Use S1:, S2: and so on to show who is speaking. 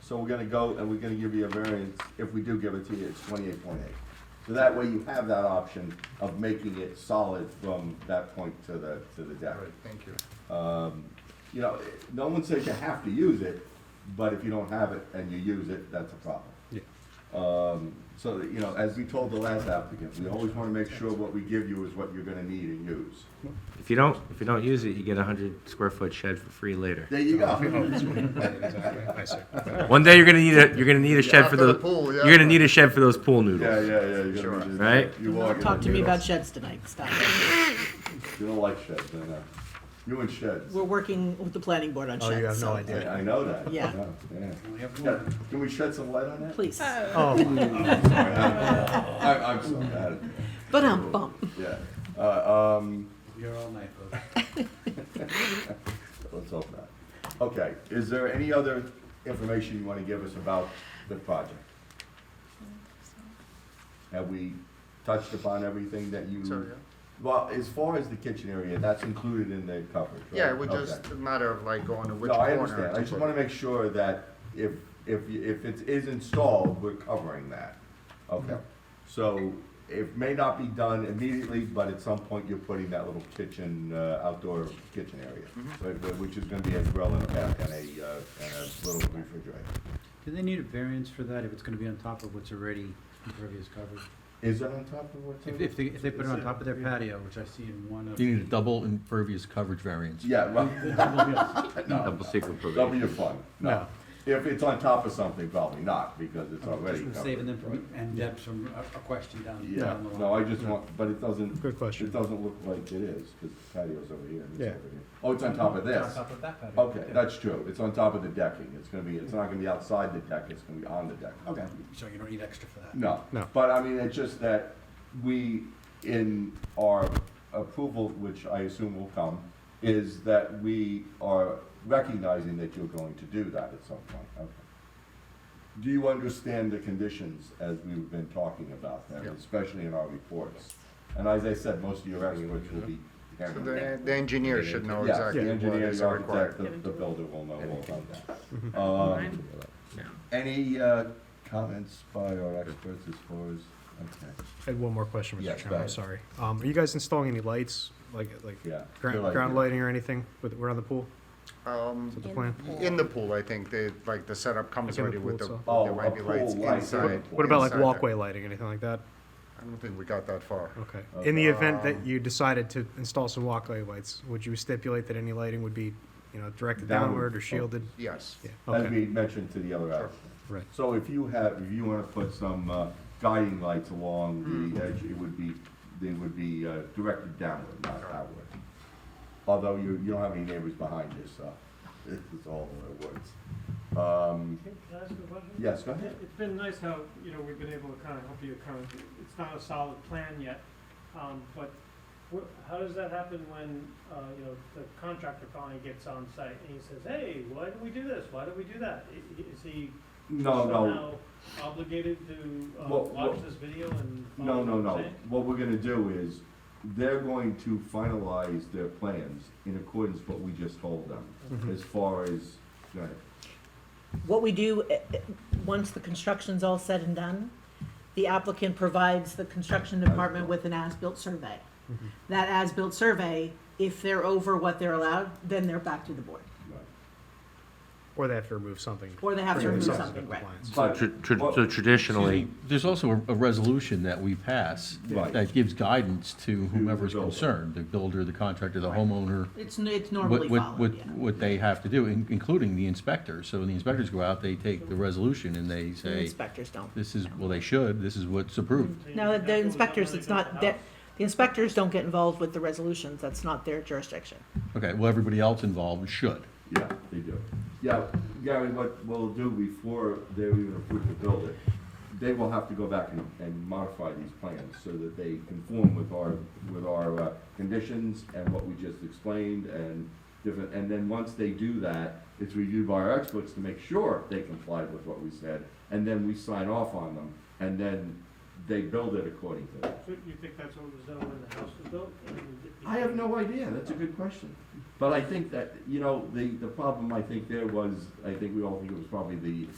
S1: So we're gonna go and we're gonna give you a variance, if we do give it to you, it's twenty-eight point eight. So that way you have that option of making it solid from that point to the, to the deck.
S2: All right, thank you.
S1: You know, it- no one says you have to use it, but if you don't have it and you use it, that's a problem.
S3: Yeah.
S1: Um, so, that, you know, as we told the last applicant, we always wanna make sure what we give you is what you're gonna need and use.
S4: If you don't, if you don't use it, you get a hundred square foot shed for free later.
S1: There you
S2: Oh,
S1: go.
S3: Exactly, I see.
S4: One day you're gonna need a, you're gonna need a shed for
S2: After Uh, the
S4: the,
S2: pool, yeah.
S4: you're gonna need a shed for those pool
S1: Yeah, yeah,
S4: noodles.
S1: yeah. you're gonna
S2: Sure.
S1: just-
S4: Right?
S1: You walk
S5: Don't
S1: in
S5: talk to
S1: the
S5: me about
S1: noodles.
S5: sheds tonight, stop.
S1: You don't like sheds, I know. You and sheds.
S5: We're working with the planning board on
S3: Oh, you
S5: sheds,
S3: have no
S5: so,
S1: I, I
S3: idea.
S1: know that.
S5: Yeah.
S1: I know, Yeah. Can we shed some light on that?
S5: please.
S3: Oh,
S1: I, I'm so bad at that.
S5: But um, I'm bump.
S1: Yeah. Uh, um,
S6: You're all night, folks.
S1: let's hope not. Okay, is there any other information you want to give us about the project? Have we touched upon everything that you?
S2: Sorry,
S1: Well, as far as the kitchen area, that's included in the coverage, right?
S2: yeah, it was
S1: Okay.
S2: just a matter of like going to which
S1: No, I
S2: corner.
S1: understand. I just wanna make sure that if, if, y- if it is installed, we're covering that. Okay. So it may not be done immediately, but at some point you're putting that little kitchen, uh, outdoor kitchen area. but- but- Which is gonna be a grill and a bath and a, uh, and a little refrigerator.
S6: Do they need a variance for that if it's gonna be on top of what's already impervious covered?
S1: Is that on top of what's?
S6: If,
S1: in
S6: if
S1: it?
S6: they, if they put it on top of their patio, which I see in one of.
S7: You need a double impervious coverage variance.
S1: Yeah, well,
S4: Double secret
S1: that'll be
S4: provision.
S1: your fun. No.
S6: No.
S1: If it's on top of something, probably not, because it's already
S6: Just
S1: covered.
S6: saving them from, and Debs from a, a question down,
S1: Yeah,
S6: down the line.
S1: no, I just want, but it doesn't.
S3: Good question.
S1: It doesn't look like it is, because patio's over here and it's
S3: Yeah.
S1: over here. Oh, it's on top of
S6: It's On
S1: this.
S6: top of that patio.
S1: Okay,
S6: yeah.
S1: that's true. It's on top of the decking. It's gonna be, it's not gonna be outside the deck, it's gonna be on the deck. Okay.
S6: So you don't need extra for that?
S1: No.
S3: No.
S1: But I mean, it's just that we, in our approval, which I assume will come, is that we are recognizing that you're going to do that at some point. Okay. Do you understand the conditions as we've been talking about them,
S2: Yeah.
S1: especially in our reports? And as I said, most of your experts will be.
S2: So the, the engineer should know
S1: Yeah,
S2: exactly
S1: the
S2: what
S1: engineer,
S2: is
S1: the architect,
S2: required.
S1: the, the builder will know all about
S3: Mm-hmm.
S1: that. Um, Any, uh, comments by our experts as far as, okay,
S3: I had one more question,
S1: Yeah, go
S3: Mr. Chairman,
S1: ahead.
S3: I'm sorry. Um, are you guys installing any lights, like, like
S1: yeah.
S3: ground,
S1: Good idea.
S3: ground lighting or anything with, around the pool? Is
S2: Um,
S3: that the plan?
S2: in the pool, I think they, like the setup comes
S3: Like in
S2: already
S3: the
S2: with the,
S3: pool itself?
S1: Oh,
S2: there
S1: a
S2: might be lights
S1: pool light.
S2: inside.
S3: What about like
S2: inside there.
S3: walkway lighting, anything like that?
S2: I don't think we got that far.
S3: Okay. In the event
S1: Um,
S3: that you decided to install some walkway lights, would you stipulate that any lighting would be, you know, directed
S1: Downward
S3: downward or shielded?
S2: Yes.
S3: Yeah,
S1: oh, As
S3: okay,
S1: we mentioned to the other applicant.
S3: right.
S1: So if you have, if you wanna put some, uh, guiding lights along
S3: Mm-hmm.
S1: the edge, it would be, they would be, uh, directed downward, not outward. Although you, you don't have any neighbors behind you, so it's all in the woods. Um,
S8: Can I ask you a question?
S1: yes, go ahead.
S8: It's been nice how, you know, we've been able to kind of help you kind of, it's not a solid plan yet, um, but wh- how does that happen when, uh, you know, the contractor finally gets on site and he says, hey, why did we do this? Why did we do that? I- i- Is he
S1: No, no,
S8: somehow obligated to uh,
S1: Well,
S8: watch
S1: well-
S8: this video and
S1: No,
S8: follow
S1: no,
S8: what I'm
S1: no.
S8: saying?
S1: What we're gonna do is, they're going to finalize their plans in accordance with what we just told them, as far as, go ahead.
S5: What we do, eh, eh, once the construction's all said and done, the applicant provides the construction department with an as-built survey.
S3: Mm-hmm.
S5: That as-built survey, if they're over what they're allowed, then they're back to the board,
S3: Or they have to remove something.
S5: or they have to
S3: for
S5: remove
S3: themselves in
S5: something, right?
S3: compliance.
S4: So
S1: But-
S4: tr- tr-
S1: Well-
S4: so traditionally,
S7: Excuse me, There's also a, a resolution that we pass
S1: Right.
S7: that gives guidance to whomever's
S1: builder.
S7: concerned, the builder, the contractor, the homeowner.
S5: It's, n- it's
S7: What,
S5: normally
S7: what,
S5: followed,
S7: what,
S5: yeah.
S7: what they have to do, in- including the inspector. So when the inspectors go out, they take the resolution and they
S5: The
S7: say,
S5: inspectors don't.
S7: this is, well, they should, this is what's approved.
S8: So you
S5: No,
S8: have to
S5: the
S8: go
S5: inspectors,
S8: down
S5: it's
S8: there to
S5: not,
S8: the
S5: the
S8: house?
S5: the inspectors don't get involved with the resolutions, that's not their jurisdiction.
S7: Okay, well, everybody else involved should.
S1: Yeah, they do. Yeah, Gary, what we'll do before they're even approved to build it, they will have to go back and, and modify these plans so that they conform with our, with our, uh, conditions and what we just explained and different, and then once they do that, it's reviewed by our experts to make sure they complied with what we said, and then we sign off on them, and then they build it according to that.
S8: So You think that's what was done when the house was built? And it
S1: I have
S8: became-
S1: no idea, that's a good question. But I think that, you know, the, the problem I think there was, I think we all think it was probably the